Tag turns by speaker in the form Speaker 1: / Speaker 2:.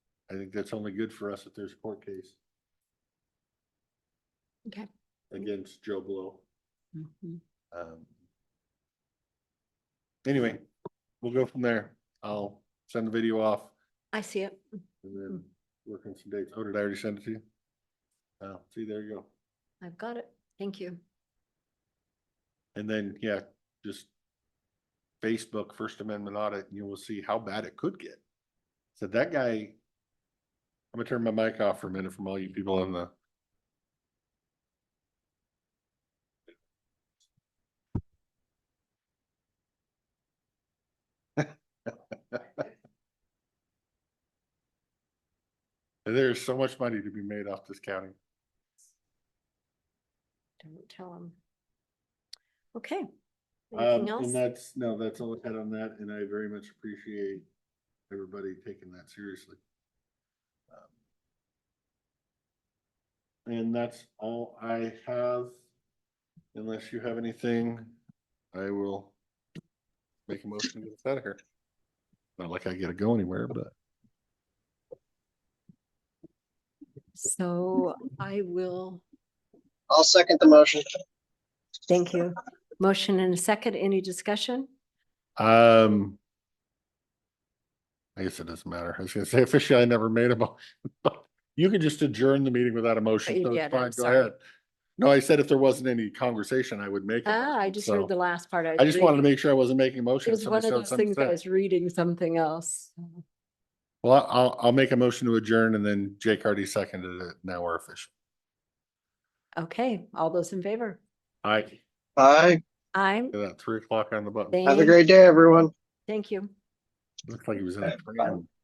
Speaker 1: I think that's only good for us if there's a court case
Speaker 2: Okay.
Speaker 1: against Joe Blow.
Speaker 2: Mhm.
Speaker 1: Um, Anyway, we'll go from there. I'll send the video off
Speaker 2: I see it.
Speaker 1: and then work on some dates. Oh, did I already send it to you? Uh, see, there you go.
Speaker 2: I've got it. Thank you.
Speaker 1: And then, yeah, just Facebook First Amendment audit, and you will see how bad it could get. So that guy, I'm gonna turn my mic off for a minute from all you people on the. There's so much money to be made off this county.
Speaker 2: Don't tell them. Okay.
Speaker 1: Um,
Speaker 2: Anything
Speaker 1: and
Speaker 2: else?
Speaker 1: that's, no, that's all I had on that, and I very much appreciate everybody taking that seriously. Um, And that's all I have. Unless you have anything, I will make a motion to get us out of here. Not like I gotta go anywhere, but
Speaker 2: So I will,
Speaker 3: I'll second the motion.
Speaker 2: thank you. Motion and a second. Any discussion?
Speaker 1: um. I guess it doesn't matter. I was gonna say officially, I never made a motion, but you can just adjourn the meeting without a motion.
Speaker 2: you
Speaker 1: so it's
Speaker 2: did, I'm
Speaker 1: fine, go
Speaker 2: sorry.
Speaker 1: ahead. No, I said if there wasn't any conversation, I would make. a
Speaker 2: Ah, I
Speaker 1: motion,
Speaker 2: just
Speaker 1: so
Speaker 2: heard the last part.
Speaker 1: I just wanted to
Speaker 2: reading-
Speaker 1: make sure I wasn't making a
Speaker 2: It
Speaker 1: motion.
Speaker 2: was one
Speaker 1: Somebody
Speaker 2: of
Speaker 1: said
Speaker 2: those
Speaker 1: something
Speaker 2: things I
Speaker 1: said.
Speaker 2: was reading something else.
Speaker 1: Well, I'll, I'll make a motion to adjourn and then Jake already seconded it. Now we're official.
Speaker 2: Okay, all those in favor?
Speaker 1: I,
Speaker 3: Bye.
Speaker 2: I'm,
Speaker 1: that three o'clock on the button.
Speaker 3: Have a
Speaker 2: thank,
Speaker 3: great day, everyone.
Speaker 2: thank you.
Speaker 1: Looks like he was in a
Speaker 3: Bye.
Speaker 1: train.